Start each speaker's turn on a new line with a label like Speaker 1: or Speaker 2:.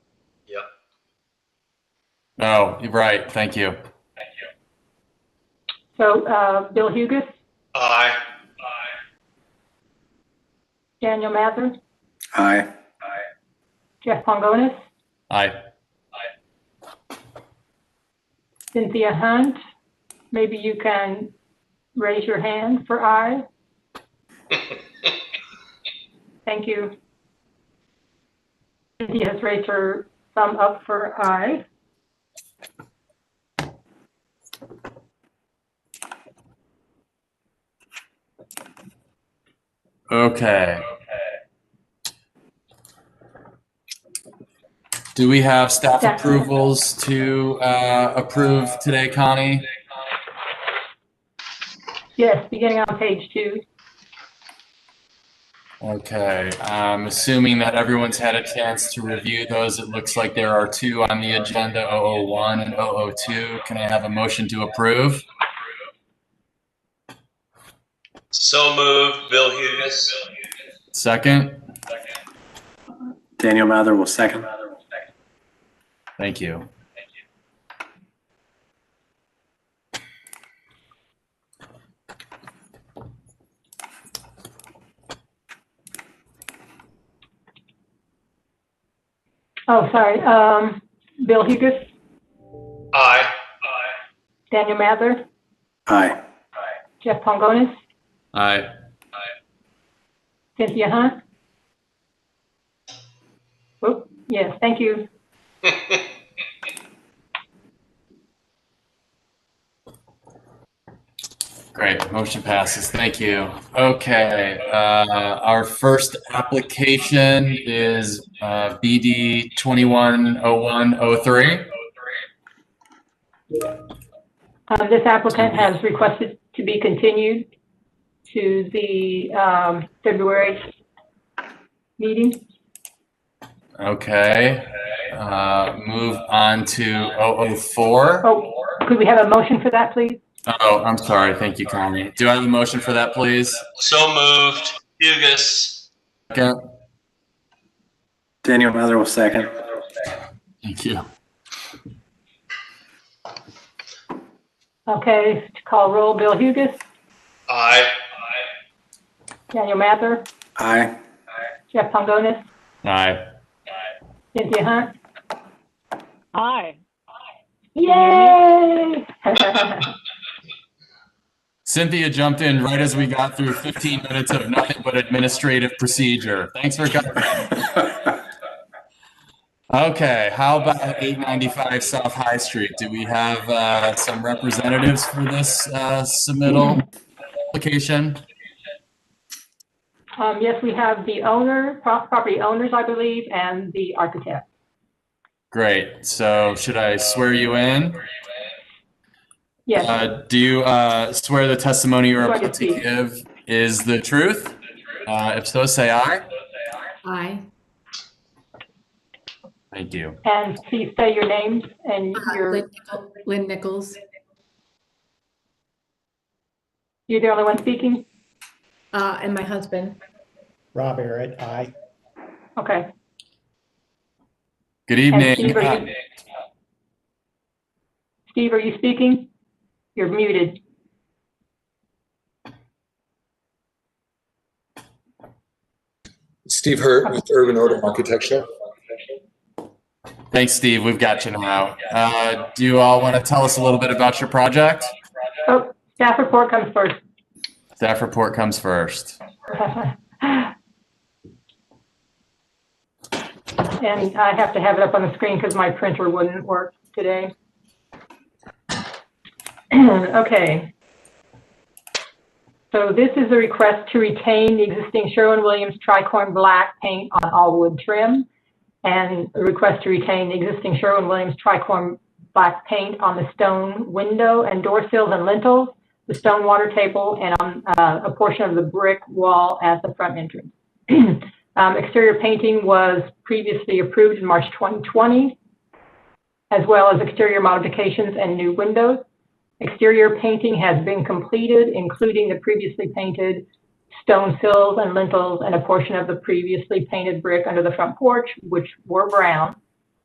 Speaker 1: No, you're Oh, right. Thank you.
Speaker 2: So uh, Bill Hugus,
Speaker 3: Aye.
Speaker 2: Daniel Mather,
Speaker 4: Aye.
Speaker 2: Jeff Pongonis,
Speaker 1: Aye.
Speaker 2: Cynthia Hunt. Maybe you can raise your hand for aye. Thank you. Cynthia has raised her thumb up for aye.
Speaker 1: Okay. Do we have staff
Speaker 2: Staff.
Speaker 1: approvals to uh, approve today, Connie?
Speaker 2: Yes, beginning on page two.
Speaker 1: Okay, I'm assuming that everyone's had a chance to review those. It looks like there are two on the agenda, 001 and 002. Can I have a motion to approve?
Speaker 3: So moved, Bill Hugus.
Speaker 1: Second?
Speaker 4: Daniel Mather will second.
Speaker 1: Thank you.
Speaker 2: Oh, sorry. Um, Bill Hugus,
Speaker 3: Aye.
Speaker 2: Daniel Mather,
Speaker 4: Aye.
Speaker 2: Jeff Pongonis,
Speaker 1: Aye.
Speaker 2: Cynthia Hunt. Oh, yes, thank you.
Speaker 1: Great, motion passes. Thank you. Okay, uh, our first application is, uh, BD twenty-one oh one oh three.
Speaker 2: Uh, This applicant has requested to be continued to the um, February meeting.
Speaker 1: Okay, uh, move on to oh oh four.
Speaker 2: Oh, could we have a motion for that, please?
Speaker 1: Oh, I'm sorry. Thank you, Connie. Do I have a motion for that, please?
Speaker 3: So moved, Hugus.
Speaker 1: Second.
Speaker 4: Daniel Mather will second.
Speaker 1: Thank you.
Speaker 2: Okay, to call roll, Bill Hugus,
Speaker 3: Aye.
Speaker 2: Daniel Mather,
Speaker 4: Aye.
Speaker 2: Jeff Pongonis,
Speaker 1: Aye.
Speaker 2: Cynthia Hunt.
Speaker 5: Aye.
Speaker 2: Yay!
Speaker 1: Cynthia jumped in right as we got through 15 minutes of nothing but administrative procedure. Thanks for coming. Okay, how about 895 South High Street? Do we have uh, some representatives for this uh, submittal application?
Speaker 2: Um, Yes, we have the owner, pro- property owners, I believe, and the architect.
Speaker 1: Great. So should I swear you in?
Speaker 2: Yes,
Speaker 1: Uh, do you uh, swear the testimony you're
Speaker 2: Swear to
Speaker 1: about to
Speaker 2: speak.
Speaker 1: give is the truth? Uh, if so, say aye.
Speaker 6: Aye.
Speaker 1: Thank you.
Speaker 2: and please say your names and
Speaker 6: Lynn
Speaker 2: your,
Speaker 6: Nichol- Lynn Nichols.
Speaker 2: you're the only one speaking?
Speaker 6: Uh, and my husband.
Speaker 7: Rob Barrett, aye.
Speaker 2: Okay.
Speaker 1: Good
Speaker 2: And
Speaker 1: evening.
Speaker 2: Steve, are you- Steve, are you speaking? You're muted.
Speaker 8: Steve Hurt with Urban Order Architecture.
Speaker 1: Uh, Thanks, Steve. We've got you now. Uh, do you all want to tell us a little bit about your project?
Speaker 2: Oh, staff report comes first.
Speaker 1: Staff report comes first.
Speaker 2: And I have to have it up on the screen because my printer wouldn't work today. Okay. So this is a request to retain the existing Sherwin-Williams tricorn black paint on all wood trim and a request to retain the existing Sherwin-Williams tricorn black paint on the stone window and door sills and lintels, the stone water table, and on uh, a portion of the brick wall at the front entrance. Um, Exterior painting was previously approved in March 2020, as well as exterior modifications and new windows. Exterior painting has been completed, including the previously painted stone sills and lintels and a portion of the previously painted brick under the front porch, which were brown.